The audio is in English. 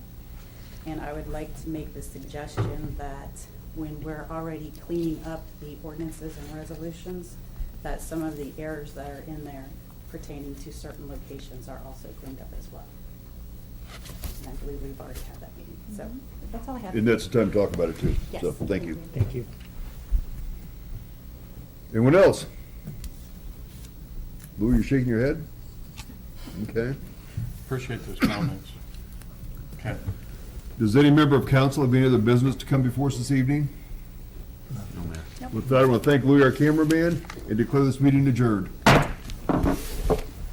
And I would like to make the suggestion that when we're already cleaning up the ordinances and resolutions, that some of the errors that are in there pertaining to certain locations are also cleaned up as well. And I believe we've already had that meeting, so Mhm. that's all I have. And that's the time to talk about it too. Yes. So, thank you. Thank you. Anyone else? Lou, you're shaking your head? Okay. Appreciate those comments. Okay. Does any member of council have any other business to come before us this evening? No, Mayor. With that, I want to thank Louis, our cameraman, and declare this meeting adjourned.